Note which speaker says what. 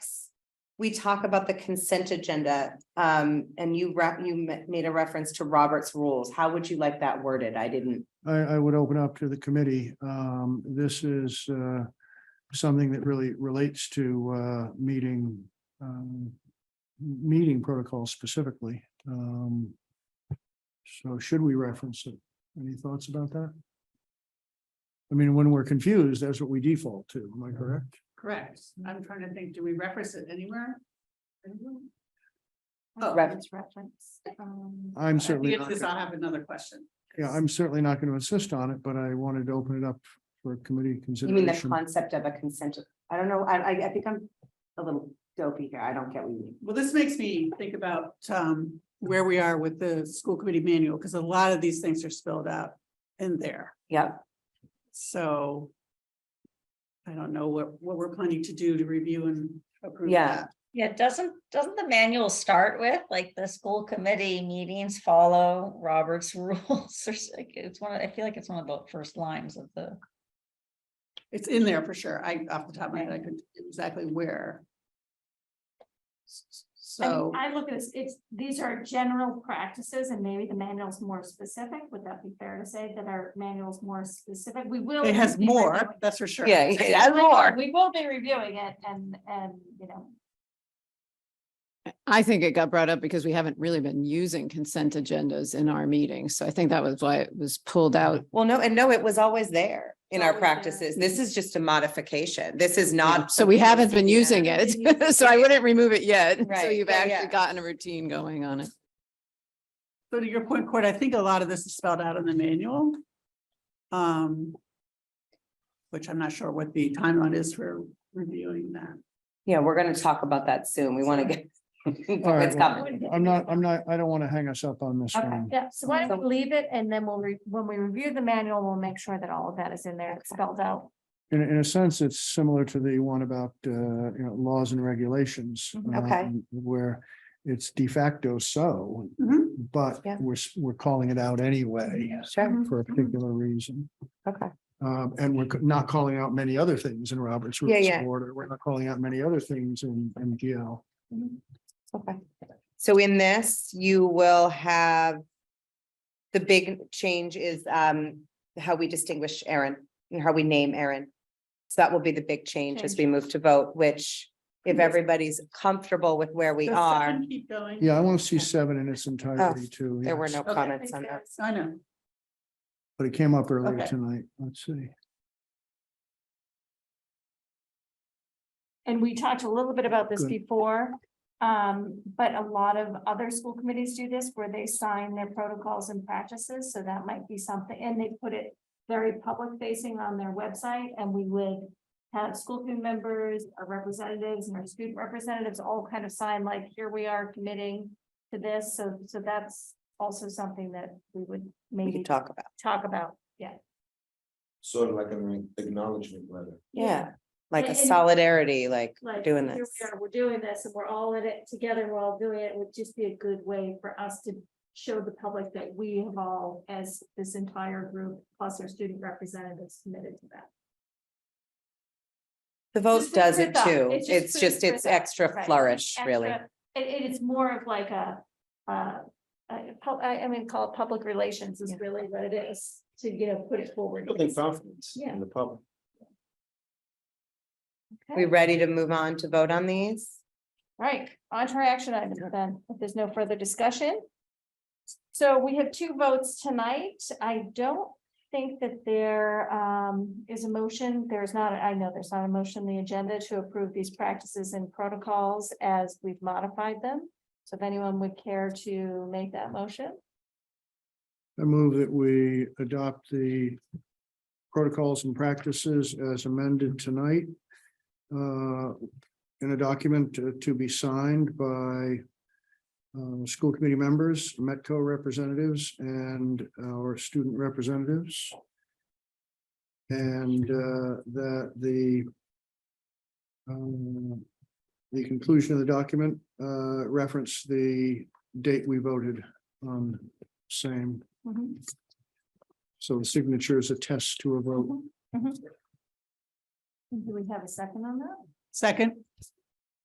Speaker 1: we talk about the consent agenda, um, and you rep, you ma- made a reference to Robert's rules. How would you like that worded? I didn't.
Speaker 2: I, I would open up to the committee. Um, this is, uh, something that really relates to, uh, meeting, um, meeting protocol specifically. Um, so should we reference it? Any thoughts about that? I mean, when we're confused, that's what we default to, am I correct?
Speaker 3: Correct. I'm trying to think, do we reference it anywhere? Oh,
Speaker 1: Ref-
Speaker 2: I'm certainly,
Speaker 3: If
Speaker 2: not
Speaker 3: this,
Speaker 2: gonna-
Speaker 3: I'll have another question.
Speaker 2: yeah, I'm certainly not going to insist on it, but I wanted to open it up for committee
Speaker 1: You mean the
Speaker 2: consideration.
Speaker 1: concept of a consent? I don't know. I, I, I think I'm a little dopey here. I don't get what you mean.
Speaker 3: Well, this makes me think about um where we are with the school committee manual, because a lot of these things are spelled out in there,
Speaker 1: Yeah,
Speaker 3: so. I don't know what what we're planning to do to review and approve
Speaker 1: Yeah.
Speaker 3: that.
Speaker 4: Yeah, doesn't, doesn't the manual start with, like, the school committee meetings follow Robert's rules? Or s- like, It's one, of I feel like it's one of the first lines of the,
Speaker 3: It's in there for sure. I, off the top of my head, I could exactly where.
Speaker 5: I mean,
Speaker 3: So,
Speaker 5: I look at this, it's, these are general practices and maybe the manual's more specific. Would that be fair to say that our manual's more specific? We will.
Speaker 3: it has
Speaker 5: be
Speaker 3: more,
Speaker 5: reviewing-
Speaker 3: that's for sure.
Speaker 1: yeah, it has more.
Speaker 5: We will be reviewing it and, and, you know,
Speaker 6: I think it got brought up because we haven't really been using consent agendas in our meetings. So I think that was why it was pulled out.
Speaker 1: Well, no, and no, it was always there in our
Speaker 5: Always there.
Speaker 1: practices. This is just a modification. This is not.
Speaker 6: So we
Speaker 1: something
Speaker 6: haven't
Speaker 1: that's
Speaker 6: been using it. So I wouldn't remove it yet. So
Speaker 1: Right.
Speaker 6: you've
Speaker 1: Yeah, yeah.
Speaker 6: actually gotten a routine going on it.
Speaker 3: So to your point, Court, I think a lot of this is spelled out in the manual. Um. Which I'm not sure what the timeline is for reviewing that.
Speaker 1: Yeah, we're gonna talk about that soon. We wanna get. It's
Speaker 2: right, well,
Speaker 1: coming.
Speaker 2: I'm not, I'm not, I don't want to hang us up on this
Speaker 1: Okay.
Speaker 2: one.
Speaker 5: yeah, so why don't
Speaker 1: So-
Speaker 5: we leave it and then we'll, re- when we review the manual, we'll make sure that all of that is in there, it's spelled out.
Speaker 2: In, in a sense, it's similar to the one about, uh, you know, laws and regulations.
Speaker 5: Mhm.
Speaker 1: Mm-hmm, Okay.
Speaker 2: um, Where it's de facto so,
Speaker 3: Mhm.
Speaker 2: but
Speaker 1: Yeah. Mm-hmm.
Speaker 2: we're, s- we're calling it out anyway
Speaker 1: Sure,
Speaker 2: for a particular reason.
Speaker 1: okay.
Speaker 2: Um, and we're c- not calling out many other things in Robert's
Speaker 1: Yeah,
Speaker 2: Rules
Speaker 1: yeah.
Speaker 2: of Order. We're not calling out many other things in, in GL.
Speaker 1: Okay, so in this, you will have. The big change is um how we distinguish Aaron, how we name Aaron. So that will be the big change as we move to vote, which if everybody's comfortable with where we
Speaker 3: Does
Speaker 1: are,
Speaker 3: seven Keep going.
Speaker 2: Yeah, I want to see seven in its entirety too.
Speaker 1: Mm-hmm. Oh, there were
Speaker 2: yes.
Speaker 1: no
Speaker 3: Okay.
Speaker 1: comments on that.
Speaker 3: I know.
Speaker 2: But it came up earlier
Speaker 3: Okay.
Speaker 2: tonight. Let's see.
Speaker 5: And we talked a little bit about this
Speaker 2: Good.
Speaker 5: before, um, but a lot of other school committees do this where they sign their protocols and practices, so that might be something, and they put it very public facing on their website, and we would have school committee members, our representatives and our student representatives all kind of sign like, here we are committing to this, so, so that's also something that we would
Speaker 1: We
Speaker 5: maybe
Speaker 1: can talk about,
Speaker 5: talk about, yeah.
Speaker 7: sort of like an acknowledgement letter.
Speaker 1: yeah, like a
Speaker 5: And-
Speaker 1: solidarity, like
Speaker 5: like.
Speaker 1: doing
Speaker 5: here
Speaker 1: this.
Speaker 5: we are, We're doing this and we're all in it together, we're all doing it, it would just be a good way for us to show the public that we have all, as this entire group, plus our student representatives committed to that.
Speaker 1: The vote
Speaker 5: Just
Speaker 1: does it
Speaker 5: puts it up.
Speaker 1: too.
Speaker 5: It just
Speaker 1: It's
Speaker 5: puts
Speaker 1: just,
Speaker 5: it
Speaker 1: it's
Speaker 5: up,
Speaker 1: extra
Speaker 5: right.
Speaker 1: flourish, really.
Speaker 5: Extra- It, it is more of like a, uh, a pub- I, I mean, call it public relations is really what it is, to, you know, put it forward.
Speaker 7: Building confidence
Speaker 5: Yeah.
Speaker 7: in the public.
Speaker 1: We
Speaker 5: Okay.
Speaker 1: ready to move on to vote on these?
Speaker 5: Right, on to our action items then, if there's no further discussion. So we have two votes tonight. I don't think that there um is a motion. There's not, I know there's not a motion on the agenda to approve these practices and protocols as we've modified them. So if anyone would care to make that motion,
Speaker 2: I move that we adopt the protocols and practices as amended tonight uh, in a document to- to be signed by uh, school committee members, Metco representatives, and our student representatives. And uh, that the um, the conclusion of the document uh, reference the date we voted on same. So the signature is a test to a vote.
Speaker 5: do we have a second on that?
Speaker 3: Second,